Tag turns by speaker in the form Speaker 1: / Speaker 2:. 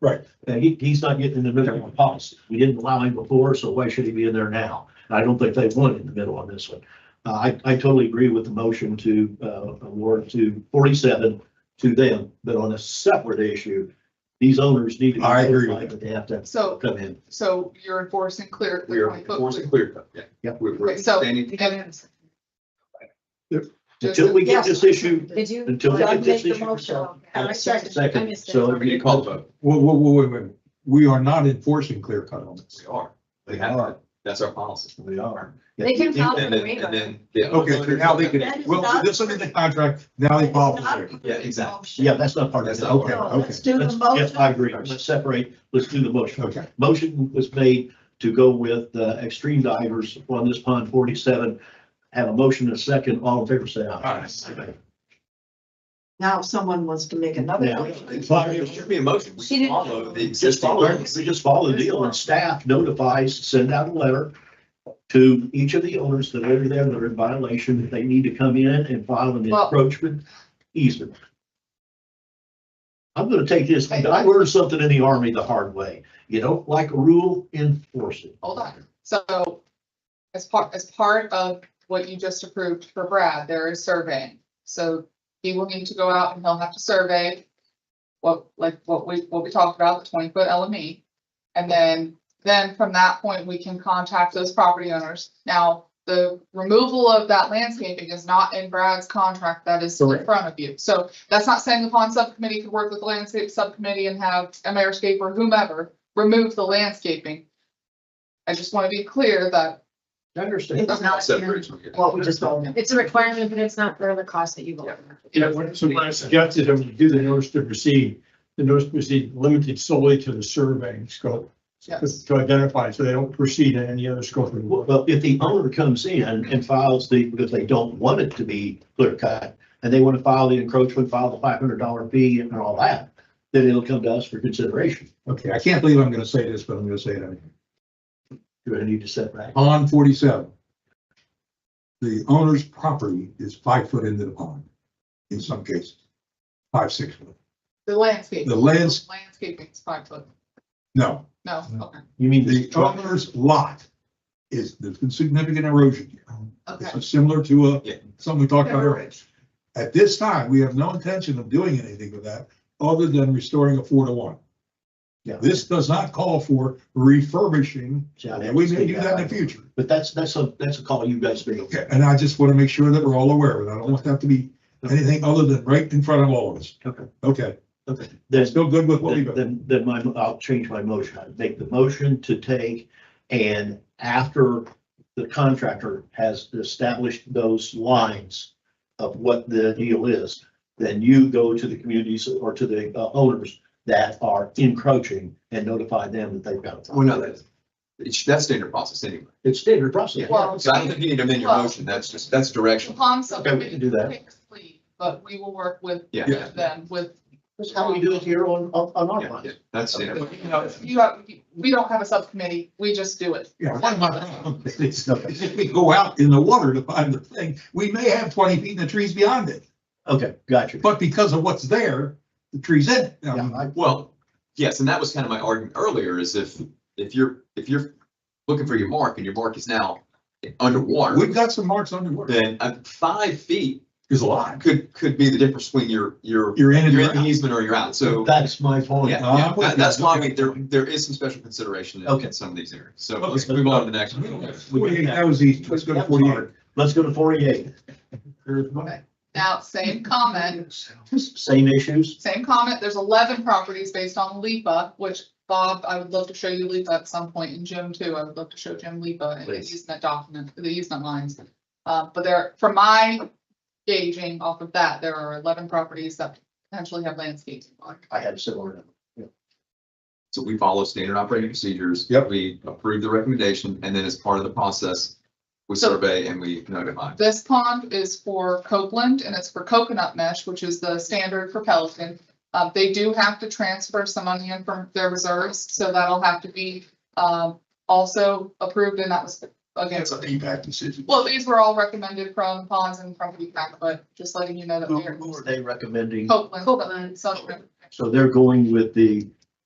Speaker 1: Right.
Speaker 2: And he, he's not getting in the middle of a policy. We didn't allow him before, so why should he be in there now? And I don't think they want in the middle on this one. Uh, I, I totally agree with the motion to, uh, award to forty-seven to them, but on a separate issue, these owners need to. be
Speaker 1: I agree.
Speaker 2: notified that They have to
Speaker 3: So,
Speaker 2: come in.
Speaker 3: so you're enforcing clear.
Speaker 4: We are
Speaker 3: clear point.
Speaker 4: enforcing clear cut, yeah.
Speaker 2: Yep.
Speaker 4: We're, we're
Speaker 3: Okay, so-
Speaker 4: standing,
Speaker 2: Until we get this issue,
Speaker 5: Did you?
Speaker 2: Until we
Speaker 5: Well,
Speaker 2: get
Speaker 5: you
Speaker 2: this
Speaker 5: made the
Speaker 2: issue
Speaker 5: motion.
Speaker 2: resolved.
Speaker 5: And I seconded. I
Speaker 2: Second.
Speaker 5: missed it.
Speaker 2: So-
Speaker 4: we need to call the vote,
Speaker 1: Whoa, whoa, whoa, wait, wait. We are not enforcing clear cut on this.
Speaker 4: we are, they have to, that's our policy.
Speaker 2: we are.
Speaker 5: They can file
Speaker 4: And
Speaker 5: an
Speaker 4: then, and
Speaker 5: waiver.
Speaker 4: then, yeah.
Speaker 1: Okay, so now they
Speaker 5: That
Speaker 1: can,
Speaker 5: is
Speaker 1: well,
Speaker 5: not-
Speaker 1: this is in the contract, now they
Speaker 5: That
Speaker 1: follow.
Speaker 5: is not a
Speaker 1: through.
Speaker 4: Yeah, exactly.
Speaker 5: motion.
Speaker 2: Yeah, that's not part of
Speaker 4: That's
Speaker 2: it.
Speaker 4: not
Speaker 1: Okay,
Speaker 4: part
Speaker 5: No,
Speaker 1: okay,
Speaker 5: let's do the
Speaker 2: Let's- Yes, I
Speaker 5: motion.
Speaker 2: agree. Let's separate. Let's do the motion.
Speaker 1: okay.
Speaker 2: Motion was made to go with uh, extreme divers on this pond forty-seven. Have a motion and a second. All in favor, say aye.
Speaker 4: Aye.
Speaker 5: Now if someone wants to make another.
Speaker 2: Now,
Speaker 5: motion.
Speaker 4: There should be a motion,
Speaker 5: She
Speaker 4: we
Speaker 5: didn't-
Speaker 4: follow the
Speaker 2: Just
Speaker 4: existing.
Speaker 2: follow, we just follow the deal and staff notifies, send out a letter to each of the owners that are there that are in violation, that they need to come in and file an
Speaker 3: Well-
Speaker 2: encroachment easement. I'm gonna take this, I learned something in the army the hard way. You don't like a rule, enforce it.
Speaker 3: Hold on. So as part, as part of what you just approved for Brad, there is surveying. So he will need to go out and he'll have to survey what, like, what we, what we talked about, the twenty foot LME. E. And then, then from that point, we can contact those property owners. Now, the removal of that landscaping is not in Brad's contract that is in
Speaker 1: Correct.
Speaker 3: front of you. So that's not saying the pond subcommittee could work with the landscape subcommittee and have a mayor'scape or whomever remove the landscaping. I just want to be clear that,
Speaker 2: I understand.
Speaker 5: It's not in
Speaker 4: Separation.
Speaker 5: what we just voted.
Speaker 6: It's a requirement, but it's not for the cost that you vote.
Speaker 7: Yeah, when I suggested them to do the notice to proceed, the notice to proceed limited solely to the surveying scope.
Speaker 3: Yes.
Speaker 7: To identify, so they don't proceed in any other scope of work.
Speaker 2: Well, if the owner comes in and files the, because they don't want it to be clear cut, and they want to file the encroachment, file the five hundred dollar fee and all that, then it'll come to us for consideration.
Speaker 1: Okay, I can't believe I'm gonna say this, but I'm gonna say it anyway.
Speaker 2: Do I need to set back?
Speaker 1: Pond forty-seven. The owner's property is five foot into the pond, in some cases, five, six foot.
Speaker 3: the landscape.
Speaker 1: The lands-
Speaker 3: Landscaping is five foot.
Speaker 1: No,
Speaker 3: No, okay,
Speaker 2: You mean
Speaker 1: the owner's lot is, there's been significant erosion. here.
Speaker 3: okay.
Speaker 1: This is similar to a,
Speaker 4: Yeah.
Speaker 1: something we talked about earlier. At this time, we have no intention of doing anything with that other than restoring a four to one.
Speaker 2: Yeah.
Speaker 1: This does not call for refurbishing, and we may do that in the future.
Speaker 2: But that's, that's a, that's a call you guys make.
Speaker 1: Okay, and I just want to make sure that we're all aware of it. I don't want that to be anything other than right in front of all of us.
Speaker 2: Okay.
Speaker 1: Okay,
Speaker 2: Okay. Then,
Speaker 1: still good with what we got.
Speaker 2: then, then my, I'll change my motion. I'd make the motion to take and after the contractor has established those lines of what the deal is, then you go to the communities or to the uh, owners that are encroaching and notify them that they've got. a problem.
Speaker 4: Well, no, that's, it's, that's standard process anyway.
Speaker 2: It's standard process.
Speaker 3: Well-
Speaker 4: So I don't think you need to amend your motion, that's just, that's direction.
Speaker 3: Upon
Speaker 2: Okay, we can do that.
Speaker 3: subcommittee, but we will work with
Speaker 4: Yeah, yeah,
Speaker 3: them with.
Speaker 2: That's how we do it here on, on on our
Speaker 4: yeah, yeah,
Speaker 2: lines.
Speaker 4: that's standard.
Speaker 3: You have, we don't have a subcommittee, we just do it.
Speaker 1: Yeah, one of my problems is is if we go out in the water to find the thing, we may have twenty feet in the trees beyond it,
Speaker 2: Okay, got you.
Speaker 1: but um, because of what's there, the tree's in. it. Now,
Speaker 2: Yeah, I-
Speaker 4: Well, yes, and that was kind of my argument earlier is if, if you're, if you're looking for your mark and your mark is now underwater,
Speaker 1: We've got some marks underwater.
Speaker 4: then uh, five feet
Speaker 1: There's a lot.
Speaker 4: could, could be the difference between your, your,
Speaker 1: You're in and
Speaker 4: your
Speaker 1: you're out.
Speaker 4: easement or you're out. So
Speaker 2: That's my point. Uh,
Speaker 4: yeah,
Speaker 1: Oh,
Speaker 4: yeah,
Speaker 1: I'm with
Speaker 4: that- that's
Speaker 1: you.
Speaker 4: why we, there, there is some special consideration in-
Speaker 2: Okay.
Speaker 4: in some of these areas. So
Speaker 1: Okay.
Speaker 4: let's move on to the next. one.
Speaker 1: Forty-eight, that was easy. Let's go to forty-eight.
Speaker 2: Let's go to forty-eight.
Speaker 3: Now, same comment,
Speaker 2: Same issues.
Speaker 3: same comment, there's eleven properties based on LIPA, which Bob, I would love to show you LIPA at some point, and Jim too, I would love to show Jim LIPA and the
Speaker 4: Please.
Speaker 3: easement document, the easement lines. Uh, but there, from my gauging off of that, there are eleven properties that potentially have landscaping on. it.
Speaker 2: I had similar.
Speaker 4: So we follow standard operating procedures.
Speaker 1: Yep.
Speaker 4: We approve the recommendation and then as part of the process, we
Speaker 3: So-
Speaker 4: survey and we notify.
Speaker 3: This pond is for Copeland and it's for coconut mesh, which is the standard for Pelican. Uh, they do have to transfer some money in from their reserves, so that'll have to be, um, also approved and that was again.
Speaker 1: That's an impact decision.
Speaker 3: Well, these were all recommended from ponds and from feedback, but Oh. just letting you know that
Speaker 2: Who
Speaker 3: they're
Speaker 2: who are they recommending?
Speaker 3: Copeland,
Speaker 6: Copeland.
Speaker 3: Southern.
Speaker 2: So they're going with the